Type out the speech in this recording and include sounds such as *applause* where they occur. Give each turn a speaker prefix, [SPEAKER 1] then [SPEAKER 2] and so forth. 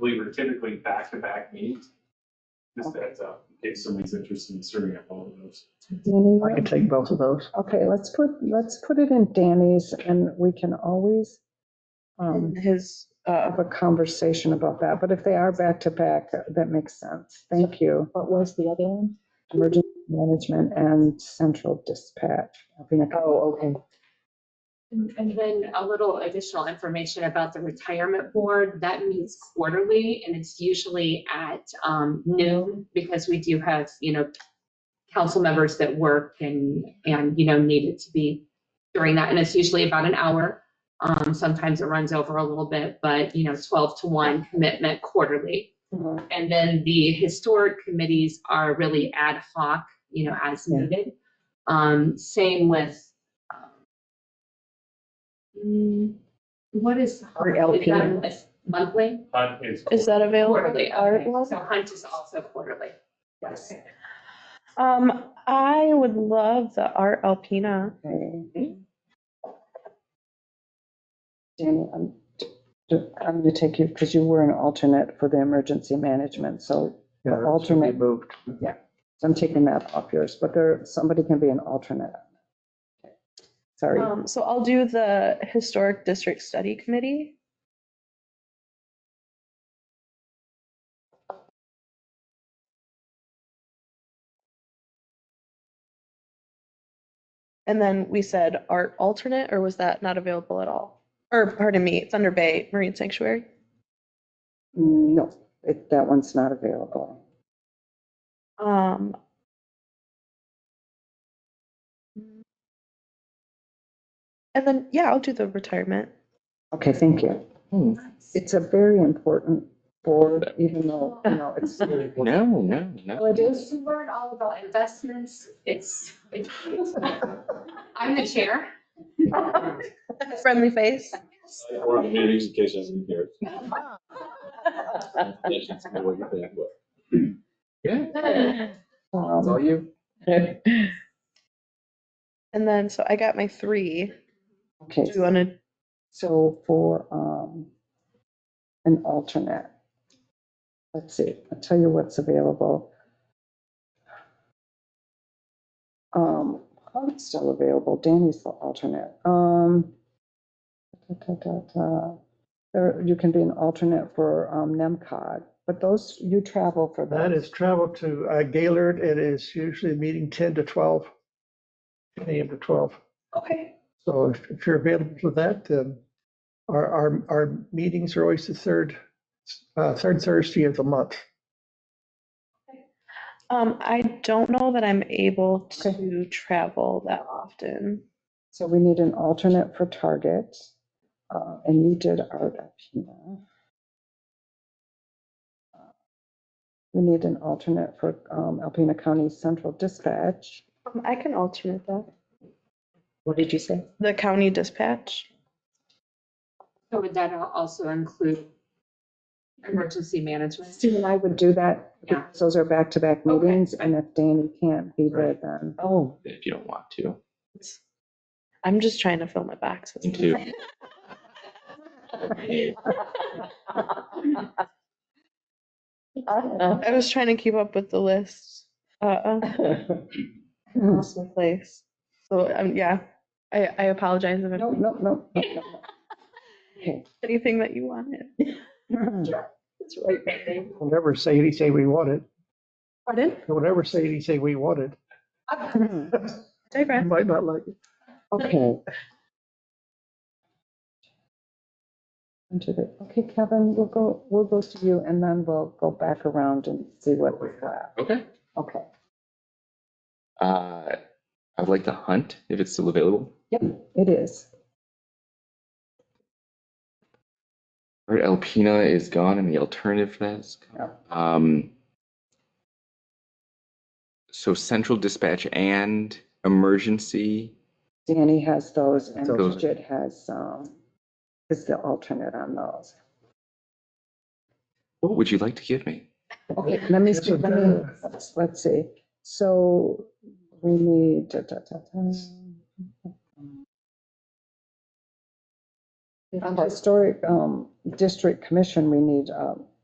[SPEAKER 1] we were typically back-to-back meetings. Just heads up, in case somebody's interested in serving at both of those.
[SPEAKER 2] Danny,
[SPEAKER 3] I can take both of those.
[SPEAKER 2] okay, let's put, let's put it in Danny's and we can always um,
[SPEAKER 3] In His, uh,
[SPEAKER 2] have a conversation about that. But if they are back to back, that makes sense. Thank you.
[SPEAKER 4] What was the other one?
[SPEAKER 2] Emergency management and central dispatch. I think-
[SPEAKER 4] Oh, okay.
[SPEAKER 5] And and then a little additional information about the retirement board. That meets quarterly and it's usually at um, noon because we do have, you know, council members that work and, and, you know, need it to be during that. And it's usually about an hour. Um, Sometimes it runs over a little bit, but, you know, 12 to 1 commitment quarterly.
[SPEAKER 2] Mhm.
[SPEAKER 5] And then the historic committees are really ad hoc, you know, as
[SPEAKER 2] Yeah.
[SPEAKER 5] needed. Um, Same with um, Mm, What is?
[SPEAKER 4] Or
[SPEAKER 2] Oh,
[SPEAKER 5] is
[SPEAKER 4] LP.
[SPEAKER 5] that a Monthly?
[SPEAKER 1] But it's.
[SPEAKER 3] is that available?
[SPEAKER 5] Quarterly.
[SPEAKER 3] Art
[SPEAKER 5] okay.
[SPEAKER 3] one?
[SPEAKER 5] So Hunt is also quarterly. Yes.
[SPEAKER 3] Um, I would love the Art Alpina.
[SPEAKER 2] Okay. Danny, I'm, I'm going to take you, because you were an alternate for the emergency management, so
[SPEAKER 3] Yeah, that should be
[SPEAKER 2] Alternate.
[SPEAKER 3] Moved.
[SPEAKER 2] So I'm taking that off yours, but there, somebody can be an alternate. Sorry.
[SPEAKER 3] Um, so I'll do the Historic District Study Committee. And then we said art alternate, or was that not available at all? Or pardon me, Thunder Bay Marine Sanctuary.
[SPEAKER 2] No, it- that one's not available.
[SPEAKER 3] Um.
[SPEAKER 4] Mm-hmm.
[SPEAKER 3] And then, yeah, I'll do the retirement.
[SPEAKER 2] Okay, thank you.
[SPEAKER 6] Hmm.
[SPEAKER 2] It's a very important board, even though, you know, it's. um,
[SPEAKER 6] No, no, no.
[SPEAKER 5] Well, it is. You learn all about investments. It's, it's- *laughs* I'm the chair.
[SPEAKER 3] Friendly face.
[SPEAKER 6] Or meetings in case I'm here.
[SPEAKER 3] *laughs*
[SPEAKER 6] Yeah, that's all
[SPEAKER 2] um,
[SPEAKER 6] you.
[SPEAKER 3] And then, so I got my three.
[SPEAKER 2] Okay,
[SPEAKER 3] Do you want to,
[SPEAKER 2] so for um, an alternate, let's see, I'll tell you what's available. Um, oh, it's still available. Danny's the alternate. Um, da, da, da, da. There, you can be an alternate for um, NEMCOG, but those, you travel for those.
[SPEAKER 7] That is travel to uh, Gaylord. It is usually a meeting 10 to 12, 10 a.m. to 12.
[SPEAKER 3] okay,
[SPEAKER 7] So if- if you're available for that, then our, our, our meetings are always the third, uh, third Thursday of the month.
[SPEAKER 3] um, I don't know that I'm able to travel that often.
[SPEAKER 2] So we need an alternate for Target, uh, and you did Art Alpina. Uh, We need an alternate for um, Alpena County Central Dispatch.
[SPEAKER 3] Um, I can alternate that.
[SPEAKER 4] What did you say?
[SPEAKER 3] The county dispatch.
[SPEAKER 5] So would that also include emergency management?
[SPEAKER 2] Steve and I would do that.
[SPEAKER 5] Yeah.
[SPEAKER 2] because Those are back-to-back
[SPEAKER 5] Okay.
[SPEAKER 2] meetings, and if Danny can't be there, then
[SPEAKER 4] Oh,
[SPEAKER 6] If you don't want to.
[SPEAKER 3] I'm just trying to fill my boxes.
[SPEAKER 6] Me too.
[SPEAKER 3] I was trying to keep up with the list. Uh,
[SPEAKER 2] Hmm.
[SPEAKER 3] lost my place. So, um, yeah, I, I apologize if I
[SPEAKER 2] no, no, no, no, no. no. Okay.
[SPEAKER 3] anything that you wanted.
[SPEAKER 5] *laughs*
[SPEAKER 4] that's right.
[SPEAKER 7] We'll never say anything we wanted.
[SPEAKER 3] Pardon?
[SPEAKER 7] We'll never say anything we wanted. You
[SPEAKER 3] Digress.
[SPEAKER 7] might not like it.
[SPEAKER 2] Okay. *laughs* Into the, okay, Kevin, we'll go, we'll go to you and then we'll go back around and see what we've got.
[SPEAKER 6] *laughs* Okay.
[SPEAKER 2] Okay.
[SPEAKER 6] Uh, I'd like to hunt if it's still available.
[SPEAKER 2] Yep, it is.
[SPEAKER 6] Art Alpina is gone and the alternative for that is. gone. Um. So central dispatch and emergency,
[SPEAKER 2] Danny has those and
[SPEAKER 7] So-
[SPEAKER 2] Bridget has, um, is the alternate on those.
[SPEAKER 6] what would you like to give me?
[SPEAKER 2] Okay, let me,
[SPEAKER 7] Yes,
[SPEAKER 2] see,
[SPEAKER 7] it
[SPEAKER 2] let me,
[SPEAKER 7] does.
[SPEAKER 2] let's- let's see. So we need. da, da, da, da. On the historic um, district commission, we need um,